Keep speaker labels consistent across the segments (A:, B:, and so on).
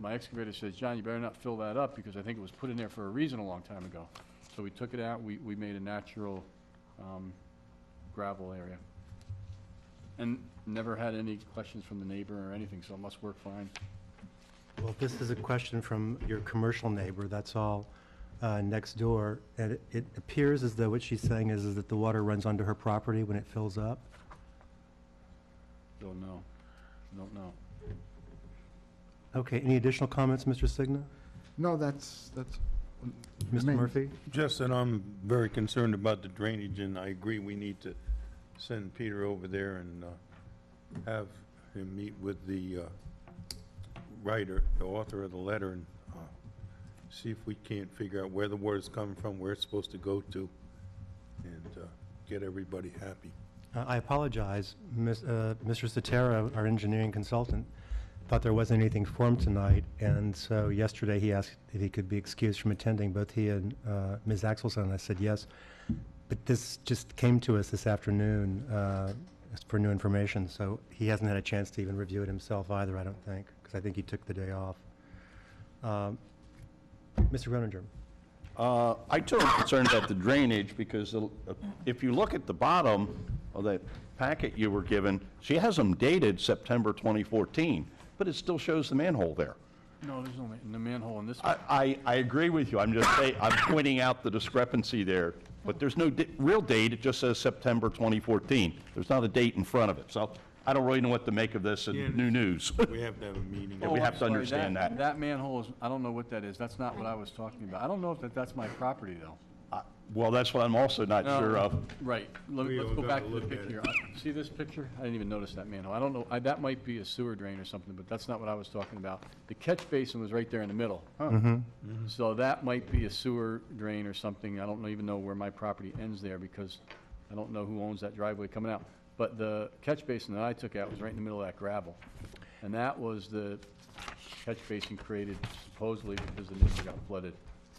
A: my excavator says, John, you better not fill that up, because I think it was put in there for a reason a long time ago. So we took it out, we, we made a natural um, gravel area. And never had any questions from the neighbor or anything, so it must work fine.
B: Well, this is a question from your commercial neighbor, that's all, uh, next door. And it- it appears as though what she's saying is, is that the water runs onto her property when it fills up.
A: Don't know, don't know.
B: Okay, any additional comments, Mr. Signa?
C: No, that's, that's.
B: Mr.
C: mean-
B: Murphy?
D: Just that I'm very concerned about the drainage, and I agree we need to send Peter over there and uh, have him meet with the uh, writer, the author of the letter, and uh, see if we can't figure out where the water's coming from, where it's supposed to go to, and uh, get everybody happy.
B: Uh, I apologize, Ms., uh, Mr. Sotero, our engineering consultant, thought there wasn't anything for him tonight, and so yesterday he asked if he could be excused from attending, both he and uh, Ms. Axelson, I said yes. But this just came to us this afternoon uh, as for new information, so he hasn't had a chance to even review it himself either, I don't think, because I think he took the day off. Um, Mr. Groninger?
E: Uh, I too am concerned about the drainage, because the- if you look at the bottom of that packet you were given, she has them dated September 2014, but it still shows the manhole there.
A: No, there's no, ma- no manhole in this. one.
E: I, I, I agree with you, I'm just saying, I'm pointing out the discrepancy there, but there's no di- real date, it just says September 2014. There's not a date in front of it, so I don't really know what to make of this and new news.
D: We have to have a meeting.
E: Yeah, we
A: Oh, I'm
E: have to
A: sorry,
E: understand that.
A: That manhole is, I don't know what that is, that's not what I was talking about. I don't know if that, that's my property, though.
E: I- Well, that's what I'm also not
A: No,
E: sure of.
A: Uh, Right, let me,
D: We
A: let's
D: all
A: go
D: gotta
A: back to the
D: look at
A: picture. I- See this picture? I didn't even notice that manhole. I don't know, I, that might be a sewer drain or something, but that's not what I was talking about. The catch basin was right there in the middle. So that might be a sewer drain or something. I don't even know where my property ends there because I don't know who owns that driveway coming out. But the catch basin that I took out was right in the middle of that gravel. And that was the catch basin created supposedly because the neighbor got flooded,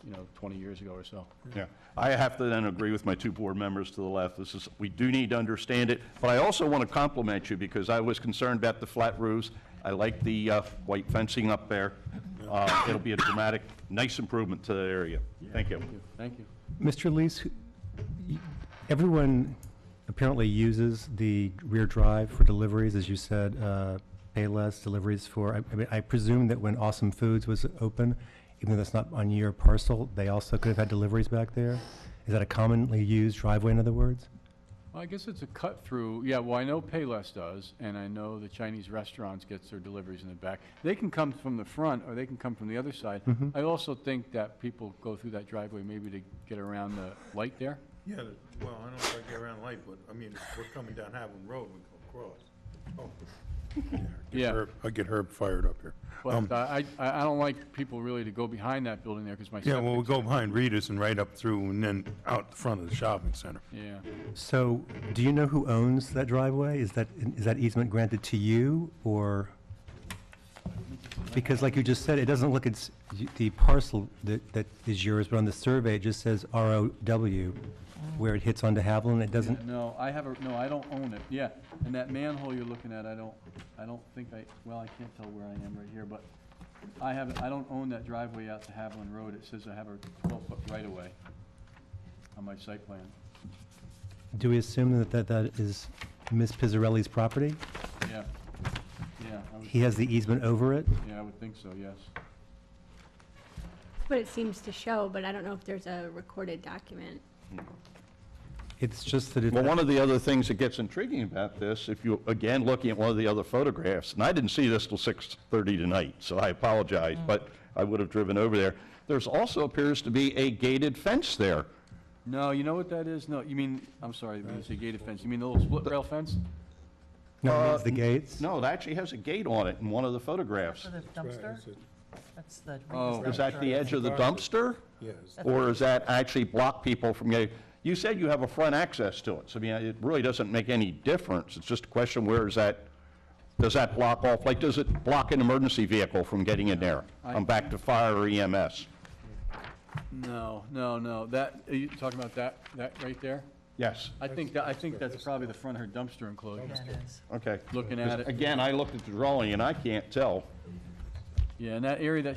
A: you know, twenty years ago or so.
E: Yeah, I have to then agree with my two board members to the left. This is, we do need to understand it, but I also want to compliment you because I was concerned about the flat roofs. I like the uh, white fencing up there. Uh, It'll be a dramatic, nice improvement to the area. Thank you.
A: Thank you.
B: Mr. Lees, who- y- everyone apparently uses the rear drive for deliveries, as you said, uh, pay less deliveries for, I- I mean, I presume that when Awesome Foods was open, even though that's not on your parcel, they also could have had deliveries back there? Is that a commonly used driveway, in other words?
A: Well, I guess it's a cut through, yeah, well, I know Payless does, and I know the Chinese restaurants gets their deliveries in the back. They can come from the front, or they can come from the other side.
D: Mm-hmm.
A: I also think that people go through that driveway maybe to get around the light there.
D: Yeah, well, I don't like get around light, but, I mean, we're coming down Havlin Road, we go across. Oh.
A: Yeah.
D: I get Herb fired up here. Um,
A: But uh, I, I I don't like people really to go behind that building there, because my
D: Yeah, well,
A: septic,
D: we'll go behind Rita's and right up through and then out the front of the shopping center.
A: yeah.
B: So, do you know who owns that driveway? Is that, is that easement granted to you, or? Because like you just said, it doesn't look, it's, the parcel that, that is yours, but on the survey, it just says ROW, where it hits onto Haviland, it doesn't,
A: No, I have a, no, I don't own it, yeah. And that manhole you're looking at, I don't, I don't think I, well, I can't tell where I am right here, but I have, I don't own that driveway out to Haviland Road. It says I have a twelve-foot right-of-way on my site plan.
B: do we assume that, that that is Ms. Pizzarelli's property?
A: Yeah, yeah, I would,
B: He has the easement over it?
A: yeah, I would think so, yes.
F: But it seems to show, but I don't know if there's a recorded document.
B: It's just that it,
E: Well, one of the other things that gets intriguing about this, if you, again, looking at one of the other photographs, and I didn't see this till 6:30 tonight, so I apologize, but I would have driven over there. There's also appears to be a gated fence there.
A: No, you know what that is? No, you mean, I'm sorry, when you say gated fence, you mean the little split rail fence?
B: no, it means the gates?
E: No, it actually has a gate on it in one of the photographs.
G: For the dumpster? That's the.
A: Oh.
E: Is that the edge of the dumpster?
D: Yes.
E: Or is that actually block people from getting, you said you have a front access to it, so I mean, it really doesn't make any difference. It's just a question, where is that, does that block off, like, does it block an emergency vehicle from getting in there? I'm back to fire or E EMS.
A: No, no, no, that, are you talking about that, that right there?
E: Yes,
A: I think, that I think that's probably the front of her dumpster enclosure,
G: Yeah, it is.
E: okay.
A: looking at it.
E: Again, I looked at the drawing and I can't tell.
A: Yeah, and that area that